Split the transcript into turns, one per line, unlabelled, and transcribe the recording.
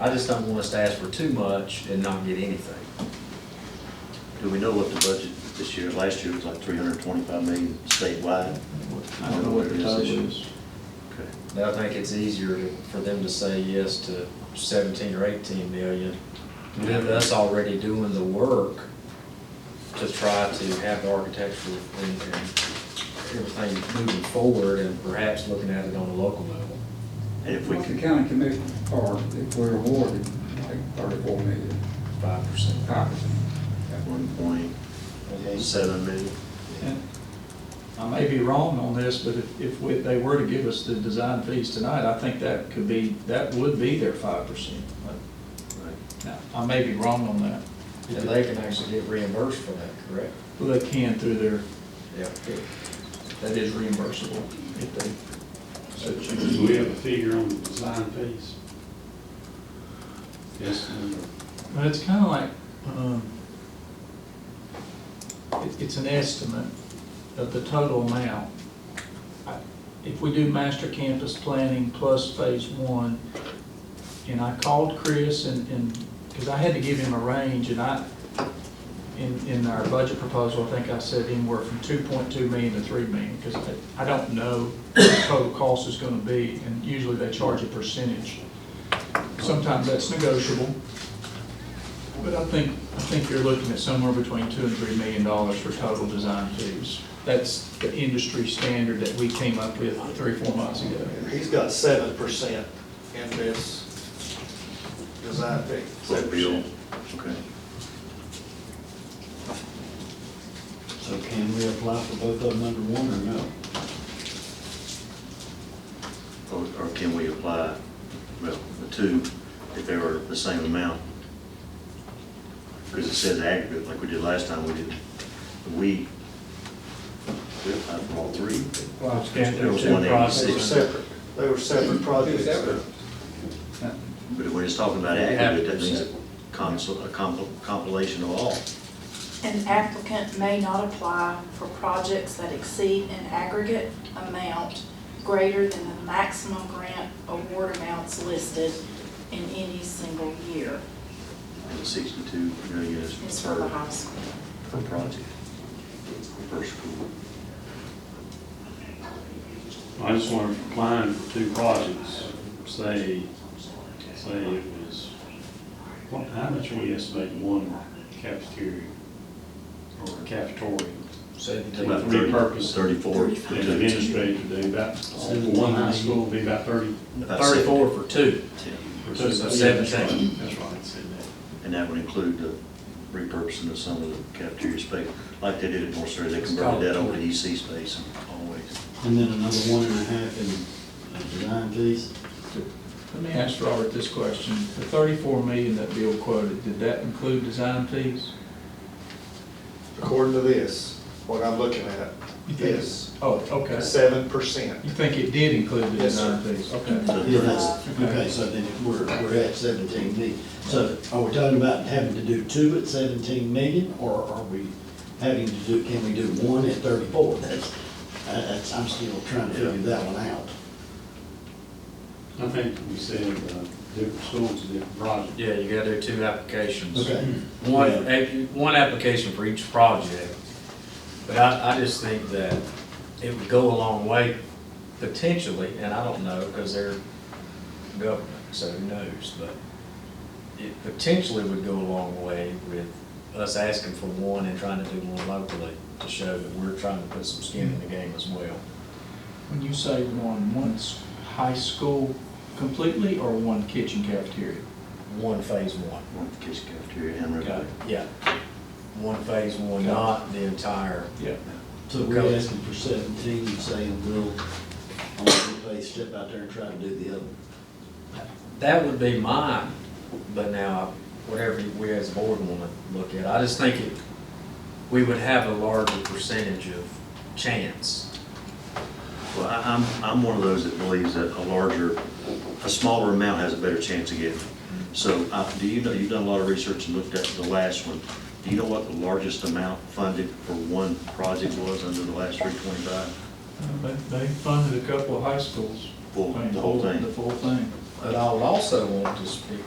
I just don't want us to ask for too much and not get anything.
Do we know what the budget this year, last year was like three hundred and twenty-five million statewide?
I don't know what the total is.
Okay.
But I think it's easier to- for them to say yes to seventeen or eighteen million, with us already doing the work to try to have the architecture and, and everything moving forward and perhaps looking at it on a local level.
And if we
What the
could,
county commission, or if we're awarded, like thirty-four million,
Five percent.
five percent.
one point seven million,
And I may be wrong on this, but if, if we- they were to give us the design fees tonight, I think that could be, that would be their five percent.
right?
I may be wrong on that.
And they can actually get reimbursed for that, correct?
Well, They can through their,
Yeah.
that is reimbursable if they so choose.
Do we have a figure on the design fees? Yes, number.
Well, it's kind of like, um, it, it's an estimate of the total amount. I- If we do master campus planning plus phase one, and I called Chris and, and, because I had to give him a range, and I, in, in our budget proposal, I think I said anywhere from two point two million to three million, because I, I don't know what the total cost is gonna be, and usually they charge a percentage. Sometimes that's negotiable. But I think, I think you're looking at somewhere between two and three million dollars for total design fees. That's the industry standard that we came up with three, or four months ago.
He's got seven percent in this design fee.
Is that real? Okay.
So can we apply for both of them under one or no?
Or, or can we apply, well, the two, if they were the same amount? Because it says aggregate, like we did last time, we did, we, we applied for all three.
Well,
There was one
They were
eighty-six,
separate, they were separate projects.
Separate.
but when it's talking about aggregate, that means a consol- a compil- compilation of all.
An applicant may not apply for projects that exceed an aggregate amount greater than the maximum grant award amounts listed in any single year.
And sixty-two million is
It's for the
per,
high school.
per project, per school.
I just wonder if applying for two projects, say, say it was, what, how much we estimate one cafeteria or cafeteria?
Seventeen.
About
Three
30
purpose.
Thirty-four. for two.
And the administrator do about, one high school would be about thirty.
About
Thirty-four for two.
Yeah.
or so.
So
Yeah, that's right.
seventeen.
That's right, I said that.
And that would include the repurposing of some of the cafeteria space, like they did at North Surrey, they converted that over to EC space always.
And then another one and a half in uh, design fees?
Let me ask Robert this question. The thirty-four million that Bill quoted, did that include design fees?
According to this, what I'm looking at, this,
Oh, okay.
seven percent.
You think it did include the
Yes, sir.
design fees? Okay.
So
Yeah,
thir-
that's, okay, so then we're, we're at seventeen million. So are we talking about having to do two at seventeen million, or are we having to do, can we do one at thirty-four? That's, uh, that's, I'm still trying to figure that one out.
I think we said, uh, different schools, different projects.
Yeah, you gotta do two applications.
Okay.
One,
Yeah.
eh, one application for each project. But I, I just think that it would go a long way potentially, and I don't know, because they're government, so who knows? But it potentially would go a long way with us asking for one and trying to do one locally to show that we're trying to put some skin in the game as well.
When you say one, one's high school completely or one kitchen cafeteria?
One phase one.
One for kids cafeteria and
Got
rec.
it.
Yeah. One phase one,
Got it.
not the entire.
Yeah.
So we're asking for seventeen, and saying we'll, on the place, step out there and try to do the other.
That would be mine, but now, whatever we as a board want to look at, I just think it, we would have a larger percentage of chance.
Well, I- I'm, I'm one of those that believes that a larger, a smaller amount has a better chance of getting. So, uh, do you know, you've done a lot of research and looked at the last one. Do you know what the largest amount funded for one project was under the last three twenty-five?
They, they funded a couple of high schools.
Full- the whole thing.
The full thing.
But I would also want to speak